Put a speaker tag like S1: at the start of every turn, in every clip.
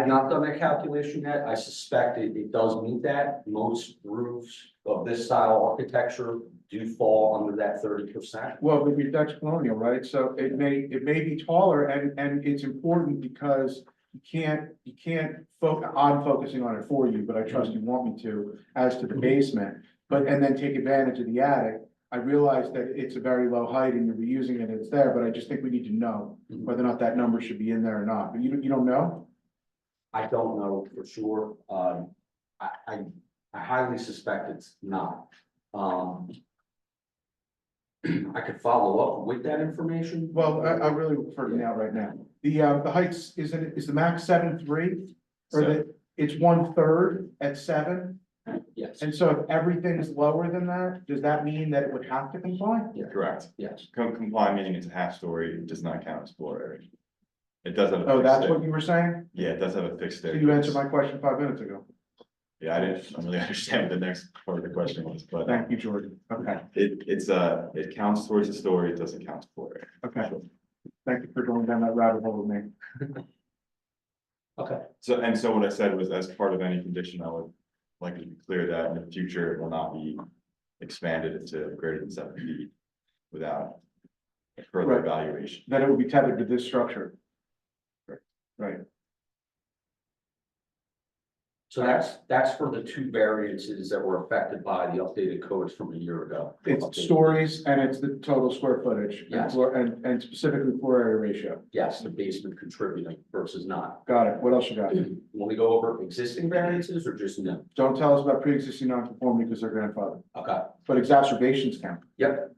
S1: I've not done that calculation yet. I suspect it, it does meet that. Most roofs of this style architecture do fall under that thirty percent.
S2: Well, it'd be Dutch colonial, right? So it may, it may be taller and, and it's important because you can't, you can't focus, I'm focusing on it for you, but I trust you want me to, as to the basement. But, and then take advantage of the attic. I realize that it's a very low height and you're reusing it, it's there, but I just think we need to know whether or not that number should be in there or not. But you, don't- you don't know?
S1: I don't know for sure. Um, I, I, I highly suspect it's not. Um. I could follow up with that information.
S2: Well, I, I really prefer to now, right now. The, uh, the heights, is it, is the max seven three? Or the, it's one third at seven?
S1: Yes,
S2: And so if everything is lower than that, does that mean that it would have to comply?
S3: Correct.
S1: yes.
S3: Com- Comply meaning it's a half story, it does not count as floor area. It does have. a
S2: Oh,
S3: fixed
S2: that's
S3: stair-
S2: what you were saying?
S3: Yeah, it does have a fixed
S2: So
S3: staircase.
S2: you answered my question five minutes ago.
S3: Yeah, I didn't, I don't really understand what the next part of the question was, but
S2: Thank you, Jordan. Okay,
S3: it, it's uh it counts towards the story, it doesn't count as floor area.
S2: okay. Thank you for going down that rabbit hole with me.
S3: So, and so what I said was as part of any condition, I would like to be clear that in the future, it will not be expanded to greater than seven feet without further
S2: Right.
S3: evaluation.
S2: That it would be tethered to this structure. Right.
S1: So that's, that's for the two variances that were affected by the updated codes from a year ago.
S2: It's stories and it's the total square footage and
S1: Yes.
S2: floor, and, and specifically floor area ratio.
S1: Yes, the basement contributing versus not.
S2: Got it. What else you got?
S1: When we go over existing variances or just no?
S2: Don't tell us about pre-existing non-conformity because they're grandfathered,
S1: Okay.
S2: but exacerbations count.
S1: Yep.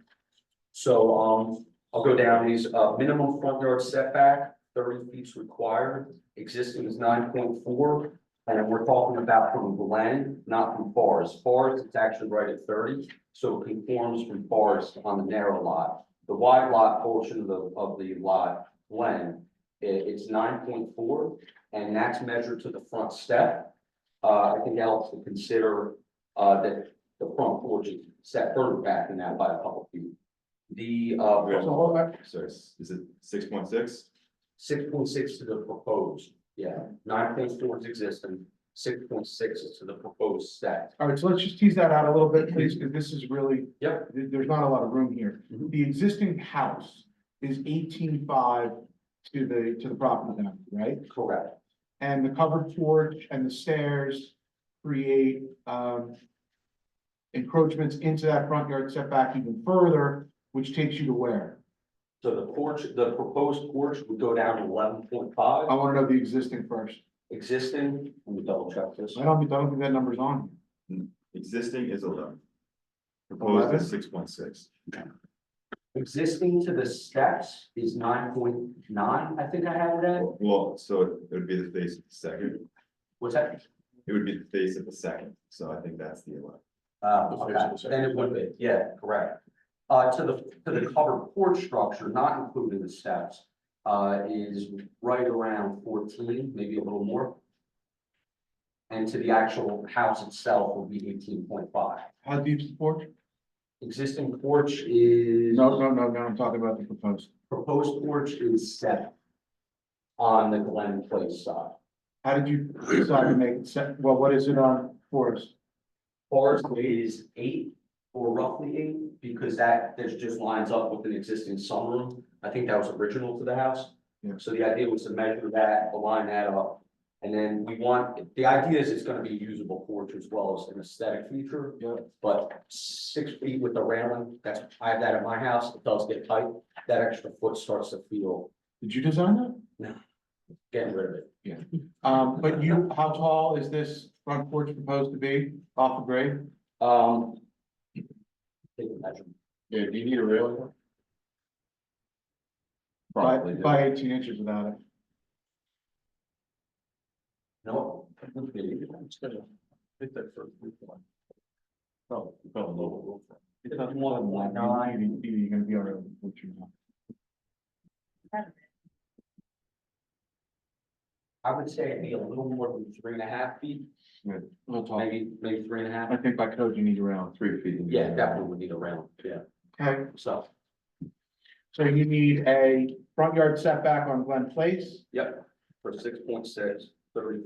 S1: So, um, I'll go down these, uh, minimum front yard setback, thirty feet's required, existing is nine point four. And we're talking about from Glen, not from Forest, Forest it's actually right at thirty, so it conforms from Forest on the narrow lot. The wide lot portion of the, of the lot, Glen, i- it's nine point four, and that's measured to the front step. Uh, I think that helps to consider, uh, that the front porch is set further back than that by a couple feet. The
S3: Yeah.
S1: uh
S2: So hold on,
S3: So it's- is it six point six?
S1: six point six to the proposed, yeah, nine point four is existing, six point six is to the proposed set.
S2: All right, so let's just tease that out a little bit, please, because this is really.
S1: Mhm. Yep.
S2: there- there's not a lot of room here.
S1: Mhm.
S2: The existing house is eighteen five to the, to the property line, right?
S1: Correct.
S2: And the covered porch and the stairs create, um. Encroachments into that front yard setback even further, which takes you to where?
S1: So the porch, the proposed porch would go down to eleven point five,
S2: I wanna know the existing first.
S1: existing, let me double check this.
S2: I don't, I don't think that number's on.
S3: Existing is eleven. Proposed is six point six.
S1: Existing to the steps is nine point nine, I think I have that,
S3: Well, so it would be the face of the second,
S1: was that?
S3: it would be the face of the second, so I think that's the eleven.
S1: Uh,
S3: The
S1: okay,
S3: facial
S1: then it would be, yeah, correct. Uh, to the, to the covered porch structure, not including the steps, uh, is right around fourteen, maybe a little more. And to the actual house itself would be eighteen point five.
S2: How deep's the porch?
S1: Existing porch is,
S2: No, no, no, no, I'm talking about the proposed.
S1: proposed porch is seven on the Glen Place side.
S2: How did you decide to make it set, well, what is it on Forest?
S1: Forest is eight or roughly eight, because that, that just lines up with an existing sunroom. I think that was original to the house.
S2: Yeah.
S1: So the idea was to measure that, align that up. And then we want, the idea is it's gonna be usable porch as well as an aesthetic feature.
S2: Yeah.
S1: But six feet with the railing, that's, I have that at my house, it does get tight. That extra foot starts to feel,
S2: Did you design that?
S1: getting rid of it.
S2: Um, but you, how tall is this front porch proposed to be off the grade?
S1: Um. Take a measure.
S3: Yeah, do you need a rail?
S2: By,
S3: Probably. do.
S2: by eighteen inches without it.
S1: No.
S3: Probably a little.
S1: It's not more than one.
S2: Nine, you're you're gonna be all right with what you want.
S1: I would say it'd be a little more than three and a half feet,
S2: A little tall.
S1: maybe, maybe three and a
S2: I
S1: half.
S2: think by code you need around.
S3: Three feet.
S1: Yeah, definitely would need a round, yeah,
S2: Okay,
S1: so,
S2: so you need a front yard setback on Glen Place
S1: yep, for six point six. thirty